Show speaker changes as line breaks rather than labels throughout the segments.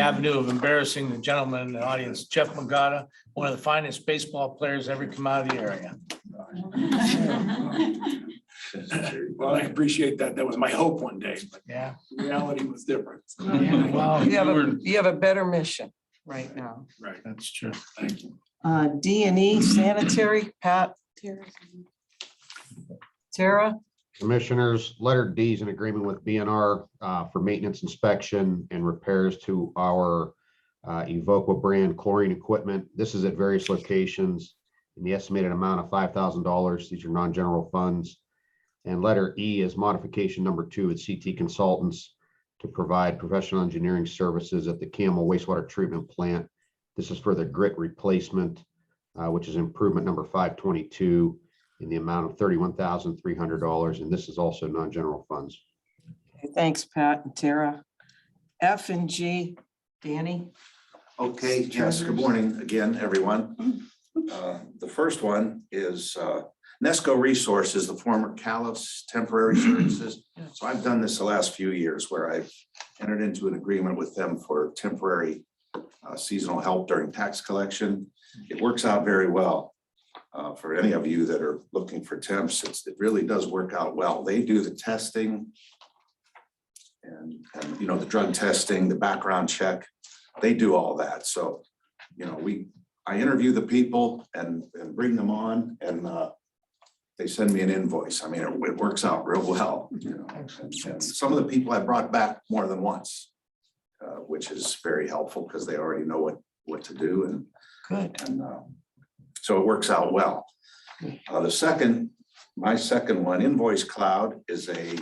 avenue of embarrassing the gentleman in the audience, Jeff Magada, one of the finest baseball players ever come out of the area.
Well, I appreciate that. That was my hope one day, but
Yeah.
reality was different.
Oh, Wow,
You have a, you have a better mission right now.
Right,
That's true.
thank you.
Uh, D and E sanitary, Pat, Tara,
Commissioners, letter D is an agreement with BNR uh, for maintenance inspection and repairs to our uh, Evoqua brand chlorine equipment. This is at various locations in the estimated amount of five thousand dollars. These are non-general funds. And letter E is modification number two at CT Consultants to provide professional engineering services at the Camel wastewater treatment plant. This is for the grit replacement, uh, which is improvement number five twenty-two in the amount of thirty-one thousand, three hundred dollars, and this is also non-general funds.
thanks, Pat and Tara. F and G, Danny,
Okay, yes, good
Treasurers.
morning again, everyone. Uh, The first one is uh, Nesco Resources, the former Callis Temporary Services. So I've done this the last few years where I've entered into an agreement with them for temporary uh, seasonal help during tax collection. It works out very well. uh, For any of you that are looking for temps, it's, it really does work out well. They do the testing and, and, you know, the drug testing, the background check they do all that. So, you know, we, I interview the people and, and bring them on and, uh, they send me an invoice. I mean, it, it works out real well, you know. And- and Some of the people I brought back more than once, uh, which is very helpful because they already know what, what to do and
good.
and uh, so it works out well. Uh, The second, my second one, Invoice Cloud is a,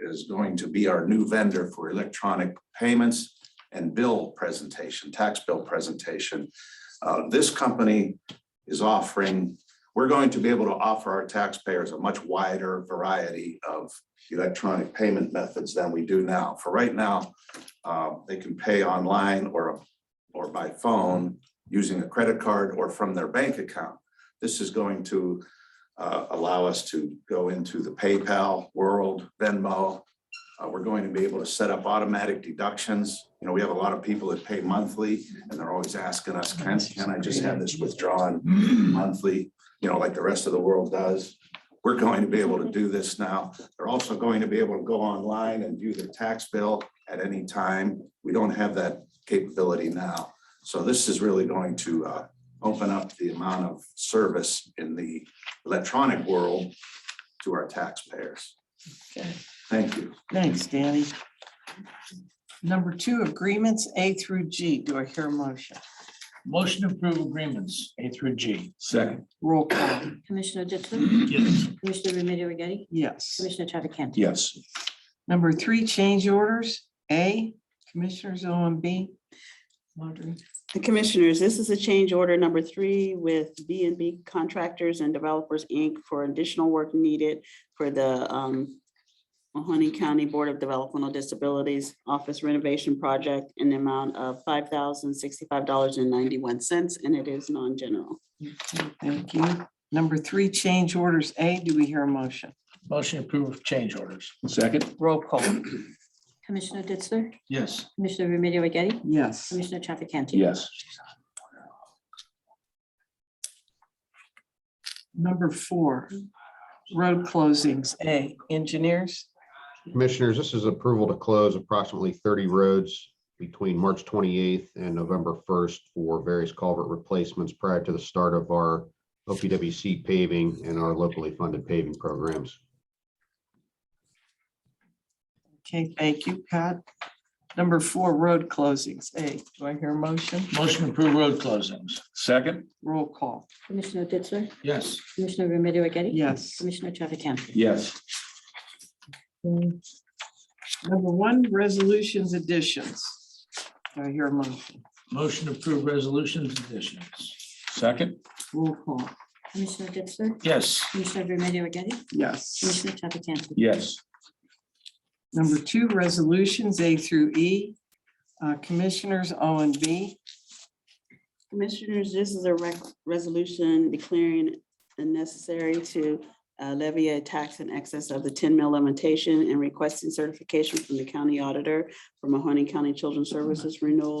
is going to be our new vendor for electronic payments and bill presentation, tax bill presentation. Uh, This company is offering, we're going to be able to offer our taxpayers a much wider variety of electronic payment methods than we do now. For right now, uh, they can pay online or, or by phone using a credit card or from their bank account. This is going to uh, allow us to go into the PayPal world, Venmo. Uh, We're going to be able to set up automatic deductions. You know, we have a lot of people that pay monthly and they're always asking us, can, can I just have this withdrawn monthly? You know, like the rest of the world does. We're going to be able to do this now. They're also going to be able to go online and view their tax bill at any time. We don't have that capability now. So this is really going to uh, open up the amount of service in the electronic world to our taxpayers.
Okay.
Thank you.
Thanks, Danny. Number two, agreements A through G. Do I hear a motion?
Motion to approve agreements, A through G.
Second,
Roll call,
Commissioner Ditzler?
Yes.
Commissioner Remedy Agati?
yes.
Commissioner Traficant?
yes,
Number three, change orders. A, Commissioners O and B. Audrey,
The Commissioners, this is a change order number three with B and B Contractors and Developers, Inc. for additional work needed for the um, Mahoney County Board of Developmental Disabilities Office renovation project in the amount of five thousand sixty-five dollars and ninety-one cents, and it is non-general.
thank you. Number three, change orders. A, do we hear a motion?
Motion to approve change orders.
second,
Roll call,
Commissioner Ditzler?
Yes.
Commissioner Remedy Agati?
yes.
Commissioner Traficant?
yes,
Number four, road closings. A, engineers.
Commissioners, this is approval to close approximately thirty roads between March twenty-eighth and November first for various culvert replacements prior to the start of our OPWC paving and our locally funded paving programs.
Okay, thank you, Pat. Number four, road closings. A, do I hear a motion?
Motion to approve road closings.
second,
Roll call,
Commissioner Ditzler?
Yes.
Commissioner Remedy Agati?
yes.
Commissioner Traficant?
yes,
Number one, resolutions additions. Do I hear a motion?
Motion to approve resolutions additions.
second,
Roll call,
Commissioner Ditzler?
Yes.
Commissioner Remedy Agati?
yes.
Commissioner Traficant?
yes,
Number two, resolutions A through E. Uh, Commissioners O and B,
Commissioners, this is a rec- resolution declaring it necessary to uh, levy a tax in excess of the ten mil limitation and requesting certification from the county auditor for Mahoney County Children's Services renewal